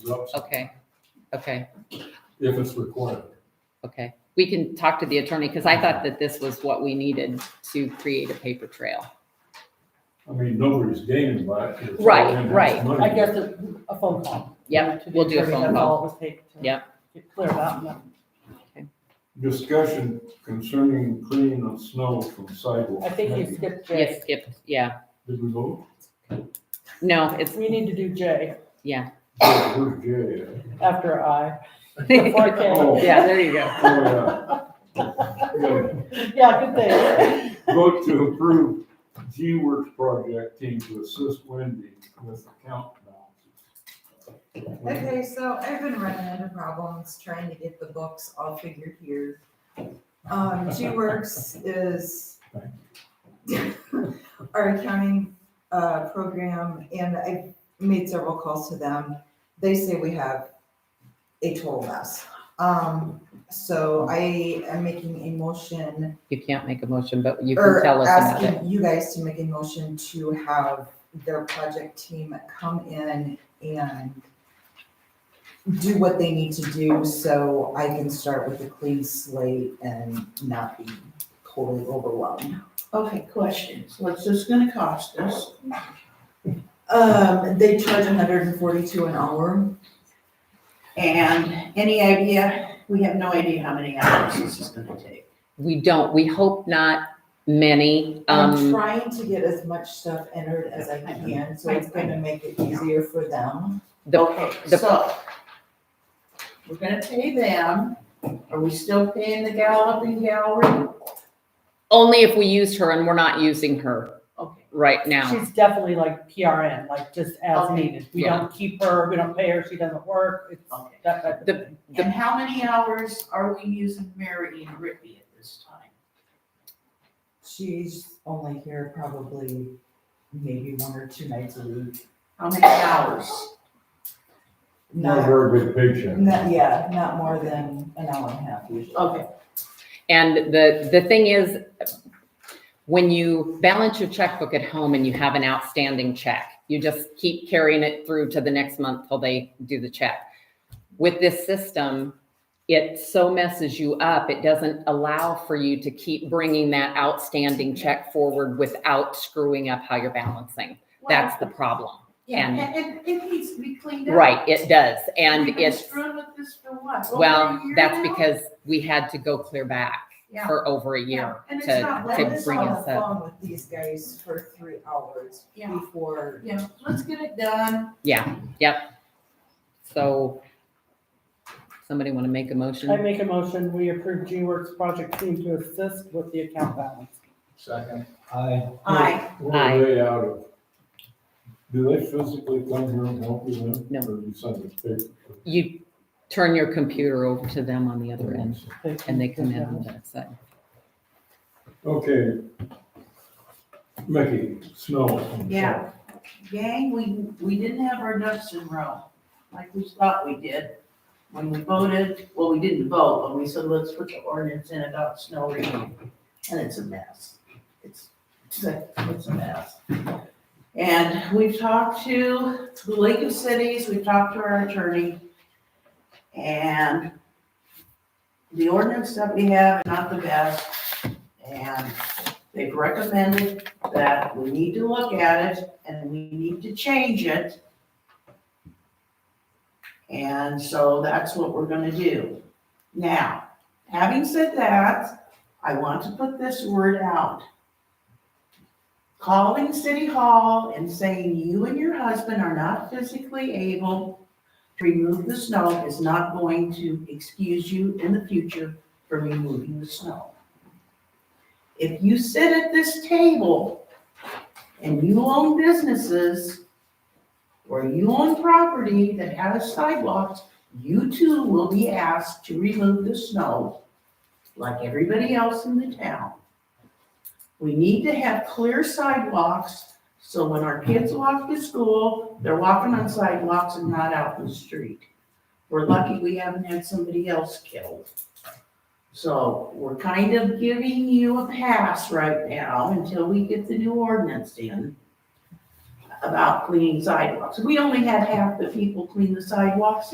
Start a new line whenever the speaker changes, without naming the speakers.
No,
Okay, okay,
if it's required.
okay. We can talk to the attorney because I thought that this was what we needed to create a paper trail.
I mean, nobody's gaining by it. It's all
Right,
in-house
right.
money.
I guess a, a phone call.
Yep,
To the
we'll do a
attorney,
phone
That's
call.
all it would take. to
Yep.
Get cleared up. and
Discussion concerning cleaning of snow from sidewalks.
I think you skipped J.
Yes, Skip, yeah.
Did we vote?
No, it's,
We need to do J
Yeah, who's Jay?
after I. Before
yeah,
I came.
Oh.
there you go.
Oh, yeah.
Yeah, good thing.
Yeah. Vote to approve G Works project team to assist Wendy with account balances.
Okay, so I've been running into problems trying to get the books all figured here. Um, G-Works is our accounting, uh, program, and I made several calls to them. They say we have a total mess. Um, so I am making a motion,
You can't make a motion, but you can
or
tell us about it.
asking you guys to make a motion to have their project team come in and do what they need to do so I can start with a clean slate and not be totally overwhelmed.
Okay, questions. What's this gonna cost us?
Um, they charge hundred and forty-two an hour.
And any idea, we have no idea how many hours this is gonna take.
We don't, we hope not many.
I'm
Um,
trying to get as much stuff entered as I can, so it's gonna make it easier for them.
the, the-
Okay, so we're gonna pay them. Are we still paying the galloping gallery?
only if we used her and we're not using her
Okay,
right now.
She's definitely like PRN, like just as
Okay.
needed. We
Yeah.
don't keep her, we don't pay her, she doesn't work, it's
okay.
that type of
The-
thing.
The-
And how many hours are we using Mary and Ricky at this time?
She's only here probably maybe one or two nights a week.
How many hours?
Not a
Not,
very big paycheck.
not, yeah, not more than an hour and a half usually.
Okay,
And the, the thing is, when you balance your checkbook at home and you have an outstanding check, you just keep carrying it through to the next month till they do the check. With this system, it so messes you up, it doesn't allow for you to keep bringing that outstanding check forward without screwing up how you're balancing. That's the problem.
Yeah,
and-
and it, it needs to be cleaned up.
Right, it does. And
We've been
it's,
screwing with this for what? Over a
well,
year
that's
now?
because we had to go clear back
Yeah.
for over a year.
Yeah, and it's
to-
not
I
like-
to
was
bring
on
us
the
up.
phone with these guys for three hours
Yeah.
before.
Yeah, let's get it done.
Yeah, yep. So somebody want to make a
I
motion?
make a motion, we approve G Works project team to assist with the account balance.
Second. Aye.
Aye.
Where
Aye.
are they out of? Do they physically come here and help you then?
No.
Or you send this paper?
You turn your computer over to them on the other end and they come in on that side.
Okay. Mickey, snow.
Yeah. Gang, we, we didn't have our ducks in a row, like we thought we did. When we voted, well, we didn't vote, but we said, let's put the ordinance in about snow removal. And it's a mess. It's, it's a it's a mess. And we've talked to the League of Cities, we've talked to our attorney. And the ordinance that we have is not the best. And they've recommended that we need to look at it and we need to change it. And so that's what we're gonna do. Now, having said that, I want to put this word out. Calling City Hall and saying you and your husband are not physically able to remove the snow is not going to excuse you in the future for removing the snow. If you sit at this table and you own businesses or you own property that has sidewalks, you too will be asked to remove the snow like everybody else in the town. We need to have clear sidewalks, so when our kids walk to school, they're walking on sidewalks and not out in the street. We're lucky we haven't had somebody else killed. So we're kind of giving you a pass right now until we get the new ordinance in. about cleaning sidewalks. We only had half the people clean the sidewalks